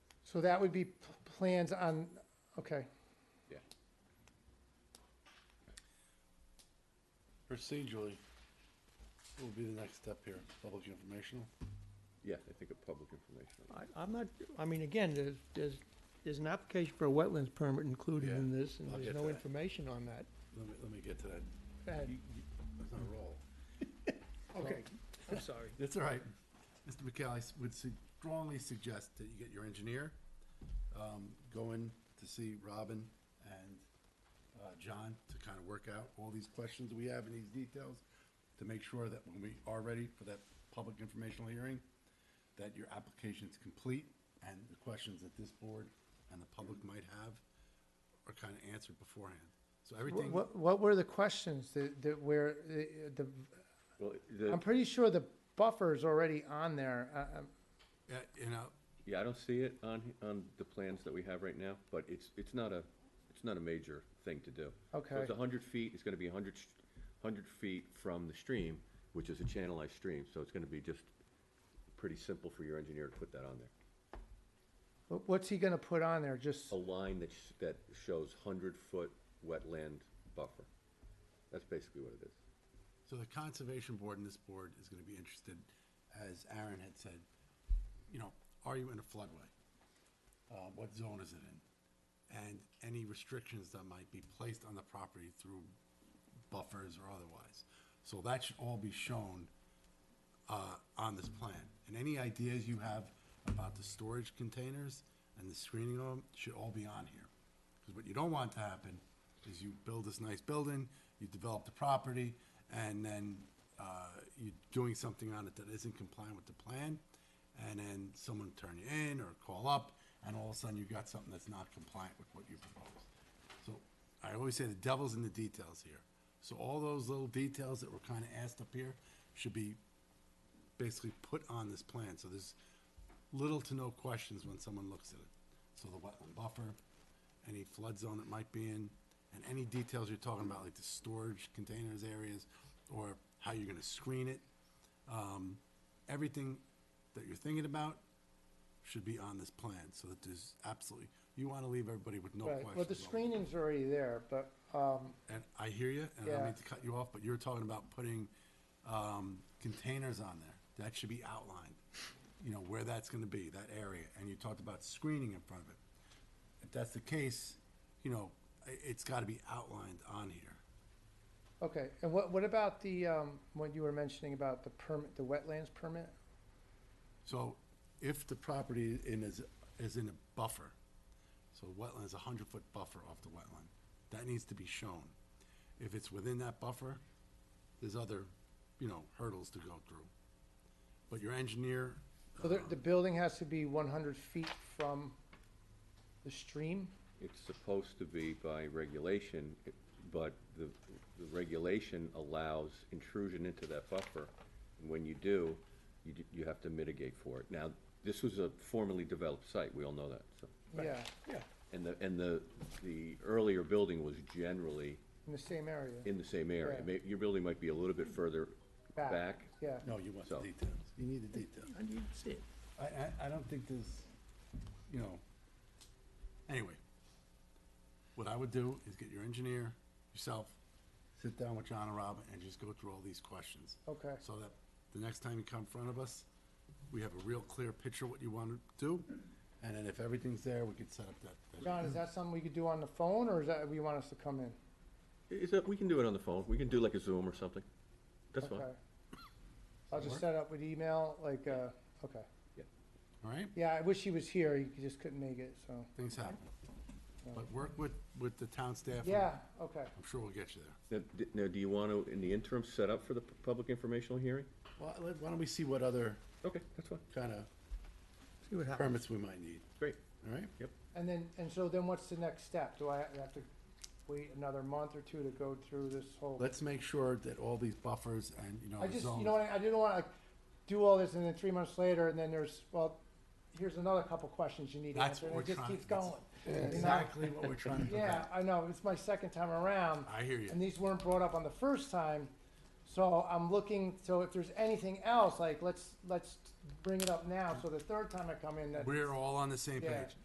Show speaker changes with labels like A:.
A: So that would be p- plans on, okay.
B: Yeah.
C: Procedurally, will be the next step here, public informational.
B: Yeah, I think a public information.
D: I, I'm not, I mean, again, there's, there's, there's an application for a wetlands permit included
C: Yeah,
D: in this, and
C: I'll
D: there's
C: get
D: no
C: that.
D: information on that.
C: Let me, let me get to that.
D: Go ahead.
C: You- you- That's not a roll.
D: Okay, I'm sorry.
C: That's all right. Mr. McCall, I s- would su- strongly suggest that you get your engineer, um, go in to see Robin and, uh, John to kind of work out all these questions we have and these details to make sure that when we are ready for that public informational hearing, that your application is complete and the questions that this board and the public might have are kind of answered beforehand. So everything,
A: What, what were the questions that, that where, uh, the,
B: Well,
A: I'm
B: the,
A: pretty sure the buffer is already on there. Uh, um,
C: uh, you know,
B: yeah, I don't see it on, on the plans that we have right now, but it's, it's not a, it's not a major thing to do. So it's
A: Okay.
B: a hundred feet, it's gonna be a hundred, sh- hundred feet from the stream, which is a channelized stream, so it's gonna be just pretty simple for your engineer to put that on there.
A: wh- What's he gonna put on there? Just,
B: A line that, sh- that shows hundred-foot wetland buffer. That's basically what it is.
C: So the conservation board and this board is gonna be interested, as Aaron had said, you know, are you in a floodway? Uh, what zone is it in? And any restrictions that might be placed on the property through buffers or otherwise. So that should all be shown, uh, on this plan. And any ideas you have about the storage containers and the screening of them should all be on here. Because what you don't want to happen is you build this nice building, you develop the property, and then uh, you're doing something on it that isn't compliant with the plan, and then someone turn you in or call up, and all of a sudden you've got something that's not compliant with what you proposed. So I always say the devil's in the details here. So all those little details that were kind of asked up here should be basically put on this plan, so there's little to no questions when someone looks at it. So the wetland buffer, any flood zone it might be in, and any details you're talking about, like the storage containers areas, or how you're gonna screen it. Um, everything that you're thinking about should be on this plan, so that there's absolutely, you wanna leave everybody with Oh, no
A: right,
C: questions.
A: well, the
C: on it.
A: screening's already there, but, um,
C: And I hear you, and I don't
A: Yeah.
C: mean to cut you off, but you were talking about putting um, containers on there. That should be outlined, you know, where that's gonna be, that area, and you talked about screening in front of it. If that's the case, you know, i- it's gotta be outlined on here.
A: okay. And what, what about the, um, what you were mentioning about the permit, the wetlands permit?
C: So if the property in is, is in a buffer, so wetland is a hundred-foot buffer off the wetland, that needs to be shown. If it's within that buffer, there's other, you know, hurdles to go through. But your engineer,
A: So the, the building has to be one hundred feet from the stream?
B: It's supposed to be by regulation, but the, the regulation allows intrusion into that buffer. And When you do, you, d- you have to mitigate for it. Now, this was a formerly developed site, we all know that, so.
A: Yeah,
B: And the, and the, the earlier building was generally
A: in the same area.
B: in the same area.
A: Yeah.
B: May your building might be a little bit further
A: Back,
B: back.
A: Yeah.
C: no, you want the
B: So-
C: details, you need the details.
D: I need to see it.
C: I, I, I don't think there's, you know, anyway. What I would do is get your engineer, yourself, sit down with John and Rob and just go through all these questions.
A: Okay.
C: So that the next time you come in front of us, we have a real clear picture of what you want to do. And then if everything's there, we could set up that. that-
A: John, is that something we could do on the phone, or is that, you want us to come in?
B: Is that, we can do it on the phone. We can do like a Zoom or something. That's fine.
A: Okay. I'll just set up with email, like, uh, okay.
C: All right?
A: Yeah, I wish he was here, he just couldn't make it, so,
C: Things happen. But work with, with the town staff. and
A: yeah, okay.
C: I'm sure we'll get you there.
B: Now, d- now, do you want to, in the interim, set up for the pu- public informational hearing?
C: Well, let- why don't we see what other
B: Okay, that's fine.
C: kind of
D: See what happens.
C: permits we might need,
B: Great.
C: all right?
A: And then, and so then what's the next step? Do I have to wait another month or two to go through this whole?
C: Let's make sure that all these buffers and, you know,
A: I just, you
C: zones.
A: know, what, I didn't wanna like, do all this and then three months later, and then there's, well, here's another couple questions you need
C: That's
A: answered, and
C: what we're
A: it just
C: trying-
A: keeps
C: that's-
A: going. you know?
C: Exactly what we're trying to
A: Yeah,
C: prevent.
A: I know, it's my second time around.
C: I hear
A: And
C: you.
A: these weren't brought up on the first time, so I'm looking, so if there's anything else, like, let's, let's bring it up now, so the third time I come in, that,
C: We're all on the same
A: Yeah.
C: page.